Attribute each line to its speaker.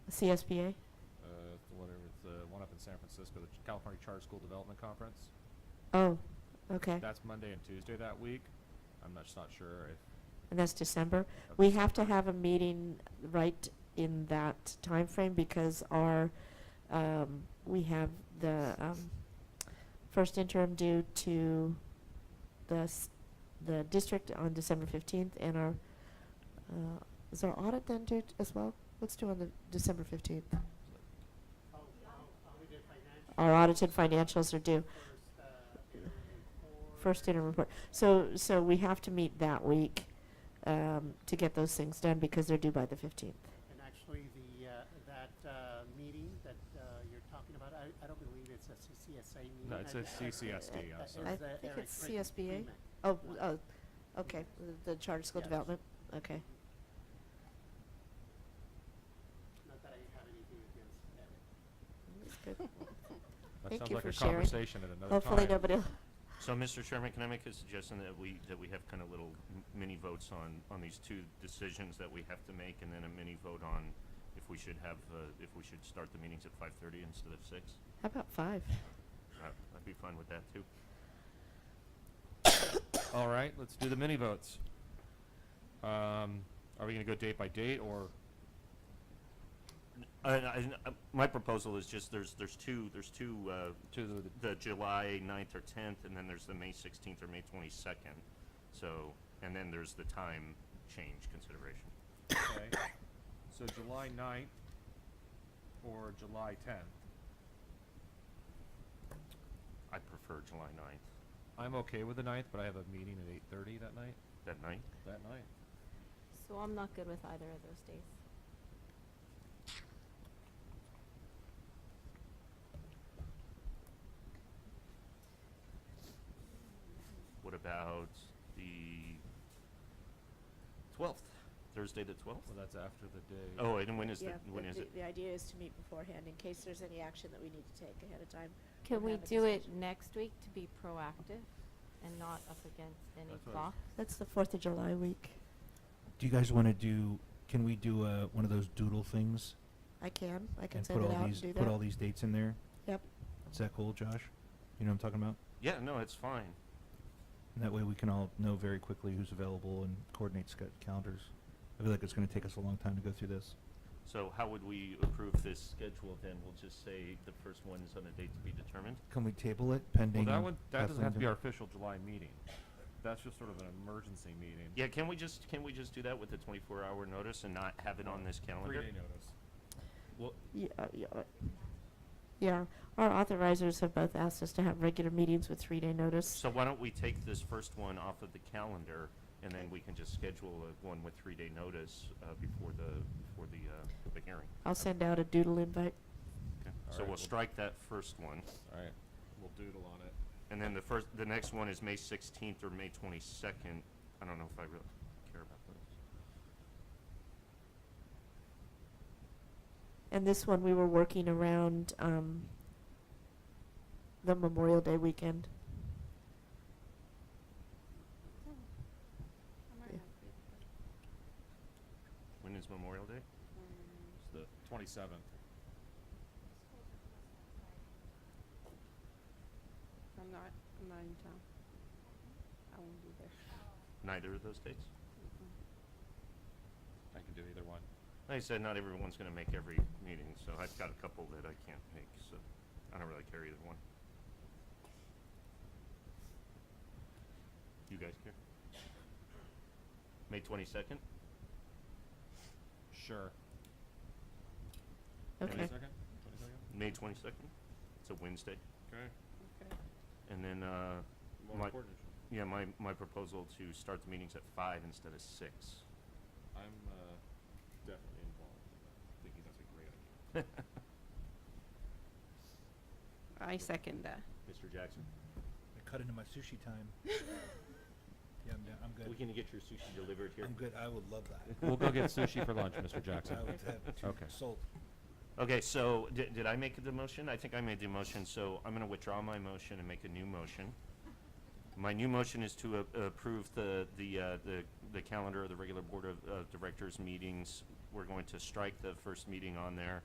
Speaker 1: CSBA?
Speaker 2: uh, whatever, it's the one up in San Francisco, the Ch- California Charter School Development Conference.
Speaker 1: Oh, okay.
Speaker 2: That's Monday and Tuesday that week. I'm not, just not sure if,
Speaker 1: And that's December.
Speaker 2: Of
Speaker 1: We have to have a meeting right in that time frame because our, um, we have the, um, first interim due to the, s- the district on December fifteenth and our, uh, is our audit then due t- as well? What's due on the December fifteenth? Our audited financials are due. First interim report. So, so we have to meet that week um, to get those things done because they're due by the 15th.
Speaker 3: And actually, the, uh, that uh, meeting that uh, you're talking about, I I don't believe it's a CCSA meeting.
Speaker 2: No, it's
Speaker 3: I-
Speaker 2: a
Speaker 3: I-
Speaker 2: CCSD, I'm
Speaker 3: that
Speaker 2: sorry.
Speaker 3: is, uh,
Speaker 1: I think
Speaker 3: Eric
Speaker 1: it's
Speaker 3: Friedman.
Speaker 1: CSBA.
Speaker 3: Friedman.
Speaker 1: Oh, oh, okay, the charter school
Speaker 3: Yes.
Speaker 1: development, okay.
Speaker 3: Not that I have anything against Eric.
Speaker 1: That's good.
Speaker 2: that
Speaker 1: Thank
Speaker 2: sounds
Speaker 1: you
Speaker 2: like
Speaker 1: for
Speaker 2: a
Speaker 1: sharing.
Speaker 2: conversation at another time.
Speaker 1: Hopefully nobody, will-
Speaker 4: So, Mr. Chairman, can I make a suggestion that we, that we have kind of little m- mini votes on, on these two decisions that we have to make, and then a mini vote on if we should have, uh, if we should start the meetings at five thirty instead of six?
Speaker 1: how about five?
Speaker 4: I- I'd be fine with that, too.
Speaker 2: All right, let's do the mini votes. Um, are we gonna go date by date or,
Speaker 4: I- I- I- uh, my proposal is just, there's, there's two, there's two, uh,
Speaker 2: To the-
Speaker 4: the July ninth or tenth, and then there's the May sixteenth or May twenty-second. So, and then there's the time change consideration.
Speaker 2: okay, so July ninth or July tenth?
Speaker 4: I prefer July ninth,
Speaker 2: I'm okay with the ninth, but I have a meeting at eight thirty that night,
Speaker 4: that night.
Speaker 2: that night.
Speaker 5: So I'm not good with either of those days.
Speaker 4: What about the twelfth? Thursday the twelfth?
Speaker 2: Well, that's after the day.
Speaker 4: Oh, and when is the, when is it?
Speaker 6: The idea is to meet beforehand in case there's any action that we need to take ahead of time.
Speaker 5: Can
Speaker 6: and
Speaker 5: we
Speaker 6: have a
Speaker 5: do it
Speaker 6: discussion.
Speaker 5: next week to be proactive and not up against any
Speaker 2: That's what I was-
Speaker 5: clock?
Speaker 1: That's the Fourth of July week.
Speaker 7: Do you guys want to do? Can we do uh, one of those doodle things
Speaker 1: I can, I can
Speaker 7: and
Speaker 1: send
Speaker 7: put
Speaker 1: it
Speaker 7: all
Speaker 1: out and
Speaker 7: these
Speaker 1: do
Speaker 7: put all
Speaker 1: that.
Speaker 7: these dates in there?
Speaker 1: Yep,
Speaker 7: Is that cool, Josh? You know what I'm talking about.
Speaker 4: Yeah, no, it's fine.
Speaker 7: And that way we can all know very quickly who's available and coordinate sc- calendars. I feel like it's going to take us a long time to go through this.
Speaker 4: So how would we approve this schedule then? We'll just say the first one is on a date to be determined?
Speaker 7: Can we table it pending?
Speaker 2: Well, that one, that doesn't have to be our
Speaker 7: Kathleen
Speaker 2: official July meeting. That's just sort of an emergency meeting.
Speaker 4: Yeah, can we just, can we just do that with a twenty-four hour notice and not have it on this calendar?
Speaker 2: Three-day notice.
Speaker 4: Well,
Speaker 1: yeah, uh, yeah. uh, Yeah, our authorizers have both asked us to have regular meetings with three-day notice.
Speaker 4: so why don't we take this first one off of the calendar and then we can just schedule a- one with three-day notice, uh, before the, before the, uh, the hearing.
Speaker 1: I'll send out a doodle invite.
Speaker 4: Okay.
Speaker 2: All right,
Speaker 4: So we'll
Speaker 2: we'll-
Speaker 4: strike that first one.
Speaker 2: All right, we'll doodle on it.
Speaker 4: And then the first, the next one is May sixteenth or May twenty-second. I don't know if I really care about those.
Speaker 1: And this one, we were working around um, the Memorial Day weekend. Yeah.
Speaker 4: When is Memorial Day?
Speaker 6: Um,
Speaker 2: It's the twenty-seventh.
Speaker 6: I'm not, I'm not in town. I won't be
Speaker 5: Oh.
Speaker 6: there.
Speaker 4: Neither of those dates?
Speaker 2: I can do either one.
Speaker 4: Like I said, not everyone's gonna make every meeting, so I've got a couple that I can't make, so I don't really care either one. You guys care? May twenty-second?
Speaker 2: Sure.
Speaker 1: Okay.
Speaker 2: Twenty-second? Twenty-second?
Speaker 4: May twenty-second? It's a Wednesday.
Speaker 2: Okay.
Speaker 6: Okay.
Speaker 4: And then, uh,
Speaker 2: More
Speaker 4: My-
Speaker 2: important.
Speaker 4: yeah, my, my proposal to start the meetings at five instead of six.
Speaker 2: I'm, uh, definitely involved. in that. I think that's a great idea.
Speaker 6: I second that.
Speaker 4: Mr. Jackson?
Speaker 7: I cut into my sushi time. yeah, I'm, down. I'm
Speaker 4: We can get your sushi delivered here.
Speaker 7: good. I would love that.
Speaker 2: We'll go get sushi for lunch, Mr. Jackson.
Speaker 7: have
Speaker 2: two Okay.
Speaker 7: sold.
Speaker 4: Okay, so did, did I make the motion? I think I made the motion, so I'm gonna withdraw my motion and make a new motion. My new motion is to a- approve the, the, uh, the, the calendar of the regular Board of, uh Directors meetings. We're going to strike the first meeting on there